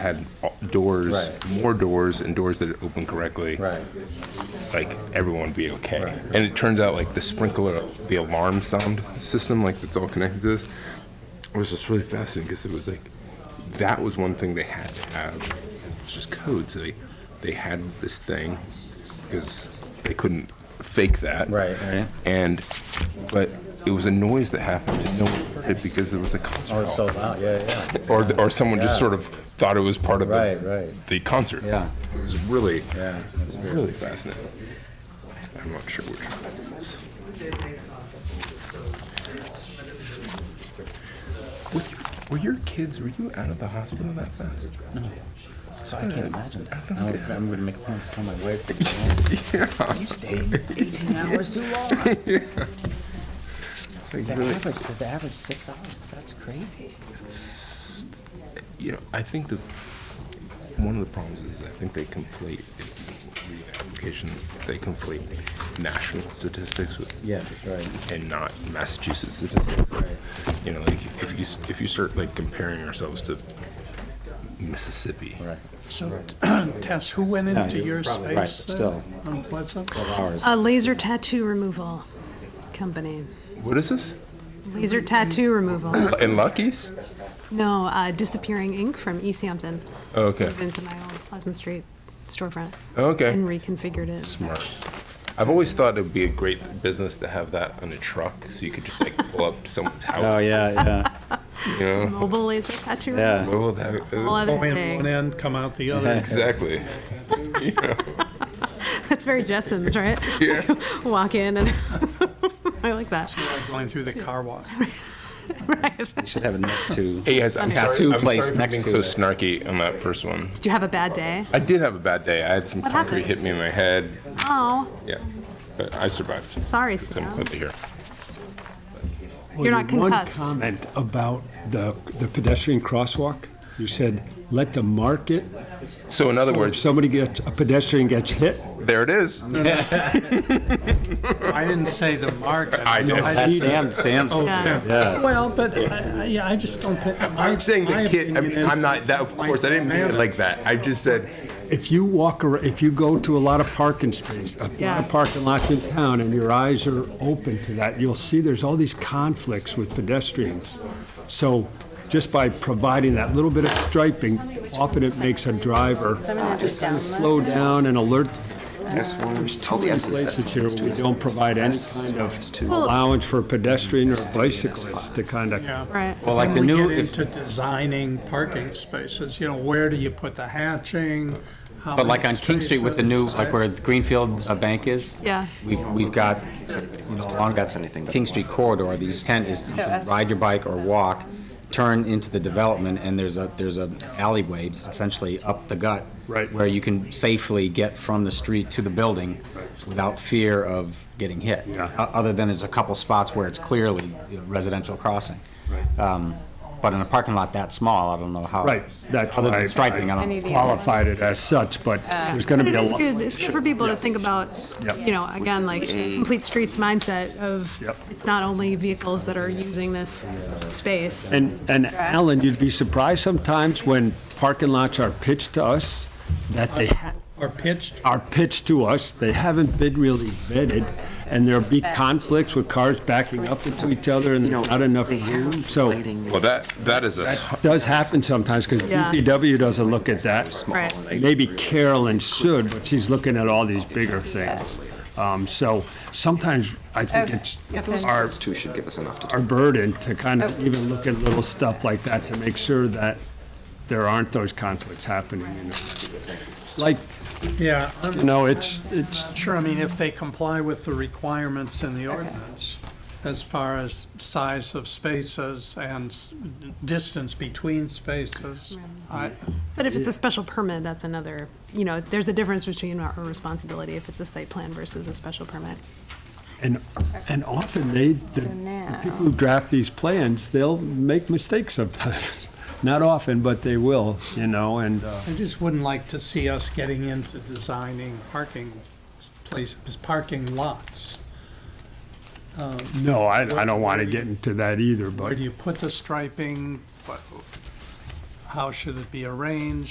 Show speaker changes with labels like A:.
A: had doors,
B: Right.
A: more doors and doors that open correctly.
B: Right.
A: Like everyone would be okay. And it turns out like the sprinkler, the alarm sound system, like that's all connected to this, was just really fascinating because it was like, that was one thing they had to have. It's just codes. They, they had this thing because they couldn't fake that.
B: Right. Right.
A: And, but it was a noise that happened and no one heard it because there was a concert.
B: Oh, it's so
A: hall.
B: loud, yeah, yeah.
A: Or, th- or someone just
B: Yeah.
A: sort of thought it was part of the-
B: Right, right.
A: the concert.
B: Yeah.
A: It was really,
B: Yeah.
A: really fascinating. I'm not sure which one it is. With your- Were your kids, were you out of the hospital that fast?
B: So I can't imagine that. I'm, I'm gonna make a point to tell my wife to go
C: You stayed 18 hours too long.
A: It's like
C: The
A: really-
C: average, the average six hours. That's crazy.
A: You know, I think that one of the problems is I think they conflate, in the application, they conflate national statistics with
B: Yeah, that's right.
A: and not Massachusetts statistics. You know, like if you s- if you start like comparing ourselves to Mississippi,
B: Right.
D: So, Tess, who went
B: No,
D: into
B: you're
D: your
B: probably right,
D: space there
B: still.
D: on Pleasant?
B: Ours.
E: A laser tattoo removal company.
A: what is this?
E: Laser tattoo removal.
A: In Lucky's?
E: No, uh, disappearing ink from East Hampton.
A: Oh, Okay,
E: Moved into my old Pleasant Street storefront and
A: okay.
E: reconfigured it.
A: Smart. I've always thought it would be a great business to have that on a truck, so you could just like pull up to someone's house.
B: Oh, yeah, Oh, yeah,
A: You know.
E: Mobile laser tattoo.
B: yeah.
E: removal.
A: Well, that- uh,
E: Whole other
D: Go in one
E: thing.
D: end, come out the other.
A: exactly.
E: That's very Jessens, right? Walk in and I like that.
D: Going through the car wash.
B: You should have it next to.
A: Hey guys, I'm
B: Tattoo
A: sorry, I'm
B: place
A: sorry for
B: next
A: being
B: to
A: so
B: it.
A: snarky on that first one.
E: Did you have a bad day?
A: I did have a bad day. I had some
E: What
A: concrete
E: happened?
A: hit me in my head.
E: Oh,
A: Yeah, but I survived.
E: sorry,
A: It's
E: Stan.
A: important to hear.
E: You're not concussed.
F: One comment about the, the pedestrian crosswalk. You said, let the market,
A: So in other
F: or if
A: words,
F: somebody gets, a pedestrian gets hit,
A: there it is.
D: I didn't say the mark.
A: I know.
B: That's Sam, Sam's.
E: Yeah.
B: Yeah.
D: Oh, Well, but, I- I- yeah, I just don't think. my-
A: I'm saying
D: my
A: the kid. I
D: opinion
A: mean,
D: is-
A: I'm not that. Of course, I didn't mean it like that. I just said
F: if you walk, ar- if you go to a lot of parking spaces, a lot
E: Yeah.
F: of parking lots in town, and your eyes are open to that, you'll see there's all these conflicts with pedestrians. So just by providing that little bit of striping, often it makes a driver slow down and alert. There's
B: Oh,
F: too many places here where we don't provide any kind of allowance for a pedestrian or bicyclist to kind of
D: Yeah.
E: Right.
B: Well, like the
D: When we
B: new,
D: get
B: if,
D: into designing parking spaces, you know, where do you put the hatching? How
B: but
D: many
B: like on King Street with the new,
D: spaces?
B: like where Greenfield uh, Bank is.
E: Yeah.
B: We've, we've got, you know, along that King Street corridor, the intent is to ride your bike or walk, turn into the development, and there's a, there's a alleyway essentially up the gut.
F: Right.
B: Where you can safely get from the street to the building without fear of getting hit. O- Other than there's a couple spots where it's clearly you know, residential crossing. Um, But in a parking lot that small, I don't know how.
F: Right, that's
B: Other
F: why I-
B: than striping, I
F: I
B: don't.
F: qualified it as such, but there's going to
E: But
F: be
E: it
F: a
E: is
F: lot.
E: good, it's good for people to think about,
F: Yep.
E: you know, again, like, complete streets mindset of,
F: Yep.
E: it's not only vehicles that are using this space.
F: And, and Alan, you'd be surprised sometimes when parking lots are pitched to us, that they ha-
D: Or pitched,
F: are pitched to us, they haven't been really vetted, and there'll be conflicts with cars backing up into each other and there's not enough room, so
A: Well, that that is a
F: that does happen sometimes, because
E: Yeah.
F: DPW doesn't look at that.
E: Right.
F: Maybe Carolyn should, but she's looking at all these bigger things. Um, So sometimes I think it's our
G: Two should give us enough to
F: our burden to kind of even look at little stuff like that to make sure that there aren't those conflicts happening. you know. Like,
D: yeah. I'm-
F: you know, it's, it's,
D: Sure, I mean, if they comply with the requirements in the ordinance, as far as size of spaces and s- distance between spaces, I,
E: But if it's a special permit, that's another, you know, there's a difference between our our responsibility if it's a site plan versus a special permit.
F: and, and often they, the the people who draft these plans, they'll make mistakes sometimes. Not often, but they will, you know, and, uh,
D: I just wouldn't like to see us getting into designing parking places, parking lots.
F: no, I, I don't want to get into that either,
D: Where
F: but.
D: do you put the striping? What- How should it be arranged?